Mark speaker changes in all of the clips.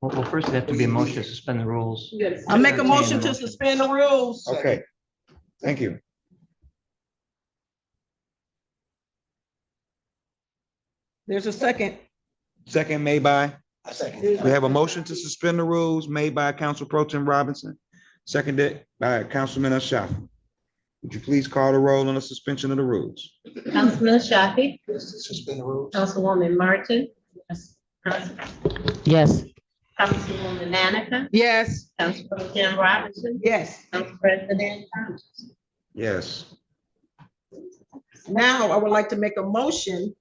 Speaker 1: Well, well, first it'd have to be a motion to suspend the rules.
Speaker 2: Yes.
Speaker 3: I make a motion to suspend the rules.
Speaker 4: Okay, thank you.
Speaker 3: There's a second.
Speaker 4: Second made by,
Speaker 5: I second.
Speaker 3: There's
Speaker 4: we
Speaker 3: a-
Speaker 4: have a motion to suspend the rules made by Council Pro Tim Robinson, seconded by Councilman Ashafi. Would you please call the roll on the suspension of the rules?
Speaker 6: Councilman Shafi,
Speaker 5: Suspend the rules.
Speaker 6: Councilwoman Martin.
Speaker 1: Yes.
Speaker 6: Councilwoman Manica,
Speaker 3: Yes.
Speaker 6: Council Pro Tim Robinson,
Speaker 3: Yes.
Speaker 6: Council President Thomas.
Speaker 4: Yes.
Speaker 3: Now I would like to make a motion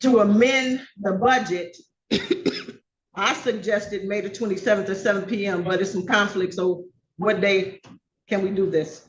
Speaker 3: to amend the budget. I suggested May the twenty-seventh at seven PM, but it's some conflict, so what day can we do this?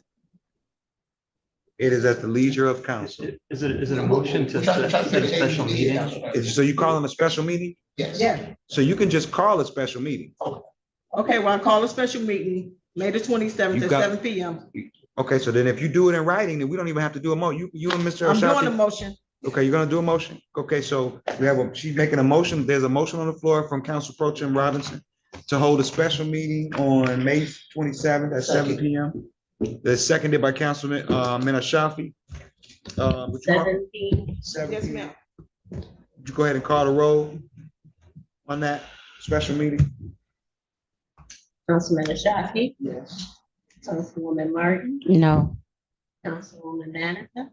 Speaker 4: It is at the leisure of council.
Speaker 1: Is it, is it a motion to suspend the special meeting?
Speaker 4: Is- So you calling a special meeting?
Speaker 5: Yes.
Speaker 3: Yeah.
Speaker 4: So you can just call a special meeting.
Speaker 3: Okay, well, I'll call a special meeting, May the twenty-seventh
Speaker 4: You
Speaker 3: at
Speaker 4: got-
Speaker 3: seven PM.
Speaker 4: Okay, so then if you do it in writing, then we don't even have to do a mo, you, you and Mr.
Speaker 3: I'm doing a
Speaker 4: Ashafi.
Speaker 3: motion.
Speaker 4: Okay, you're gonna do a motion? Okay, so we have, a she's making a motion. There's a motion on the floor from Council Pro Tim Robinson to hold a special meeting on May twenty-seventh at seven P M. That's seconded by Councilman, uh, Minashafi. Uh, would you call-
Speaker 6: Seventeen,
Speaker 4: seven
Speaker 3: Yes,
Speaker 4: P M.
Speaker 3: ma'am.
Speaker 4: Would you go ahead and call the roll on that special meeting?
Speaker 6: Councilman Shafi,
Speaker 5: Yes.
Speaker 6: Councilwoman Martin.
Speaker 7: No,
Speaker 6: Councilwoman Manica,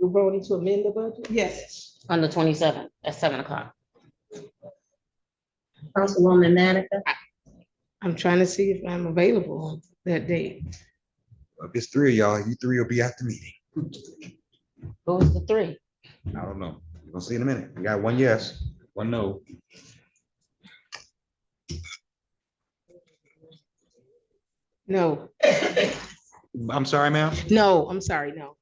Speaker 2: You're voting to amend the budget?
Speaker 3: Yes.
Speaker 7: on the twenty-seventh at seven o'clock.
Speaker 6: Councilwoman Manica,
Speaker 2: I'm trying to see if I'm available on that date.
Speaker 4: If it's three of y'all, you three will be at the meeting.
Speaker 7: What was the three?
Speaker 4: I don't know. We're gonna see in a minute. We got one yes, one no.
Speaker 2: No,
Speaker 4: I'm sorry, ma'am.
Speaker 2: no, I'm sorry, no.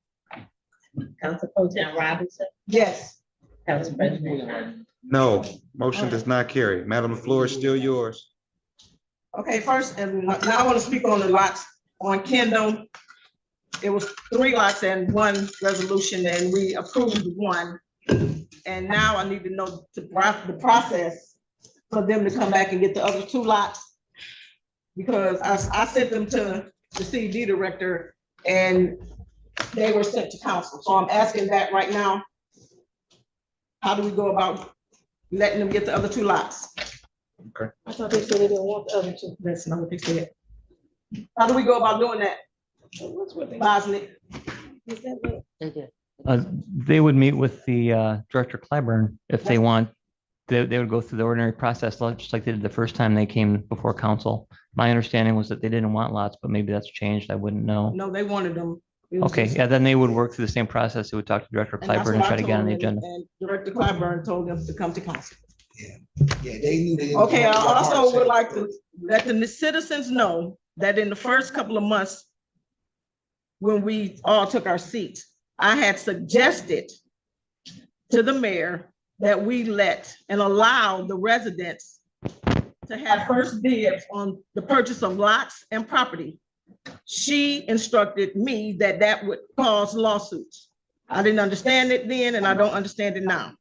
Speaker 6: Council Pro Tim Robinson,
Speaker 3: Yes.
Speaker 6: Council President Thomas.
Speaker 4: No, motion does not carry. Madam, the floor is still yours.
Speaker 3: Okay, first, and now I want to speak on the lots on Kendall. It was three lots and one resolution, and we approved one. And now I need to know the pro- the process for them to come back and get the other two lots. Because I, I sent them to the CD director, and they were sent to council, so I'm asking that right now. How do we go about letting them get the other two lots?
Speaker 2: I thought they said they didn't want the other two.
Speaker 3: That's not what they said. How do we go about doing that? Bosley,
Speaker 7: They did.
Speaker 1: Uh, They would meet with the uh, Director Clyburn if they want. They, they would go through the ordinary process, like- just like they did the first time they came before council. My understanding was that they didn't want lots, but maybe that's changed. I wouldn't know.
Speaker 3: no, they wanted them. It was
Speaker 1: Okay,
Speaker 3: just-
Speaker 1: yeah, then they would work through the same process. They would talk to Director
Speaker 3: and that's
Speaker 1: Clyburn and
Speaker 3: what I
Speaker 1: try to get on
Speaker 3: told
Speaker 1: the
Speaker 3: them,
Speaker 1: agenda.
Speaker 3: and Director Clyburn told them to come to council.
Speaker 5: Yeah, they knew they. didn't-
Speaker 3: Okay, I also would like to let the citizens know that in the first couple of months, when we all took our seats, I had suggested to the mayor that we let and allow the residents to have first dibs on the purchase of lots and property. She instructed me that that would cause lawsuits. I didn't understand it then, and I don't understand it now.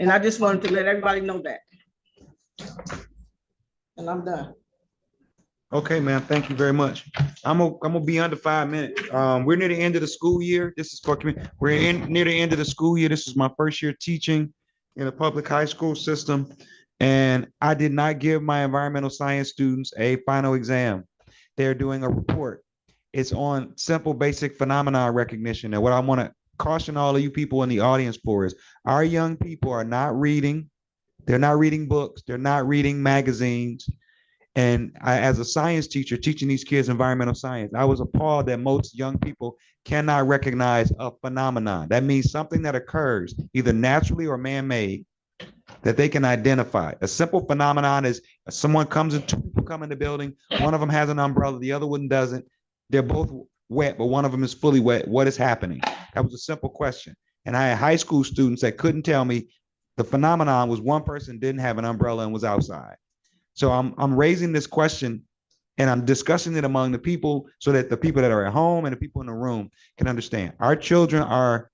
Speaker 3: And I just wanted to let everybody know that. And I'm done.
Speaker 4: Okay, ma'am, thank you very much. I'm, gonna I'm gonna be under five minutes. Um, we're near the end of the school year. This is for, commu- we're in, near the end of the school year. This is my first year teaching in a public high school system. And I did not give my environmental science students a final exam. They're doing a report. It's on simple basic phenomenon recognition. And what I want to caution all of you people in the audience for is our young people are not reading. They're not reading books. They're not reading magazines. And I, as a science teacher teaching these kids environmental science, I was appalled that most young people cannot recognize a phenomenon. That means something that occurs either naturally or man-made that they can identify. A simple phenomenon is someone comes and two people come in the building, one of them has an umbrella, the other one doesn't. They're both wet, but one of them is fully wet. What is happening? That was a simple question. And I had high school students that couldn't tell me the phenomenon was one person didn't have an umbrella and was outside. So I'm I'm raising this question and I'm discussing it among the people so that the people that are at home and the people in the room can understand. Our children are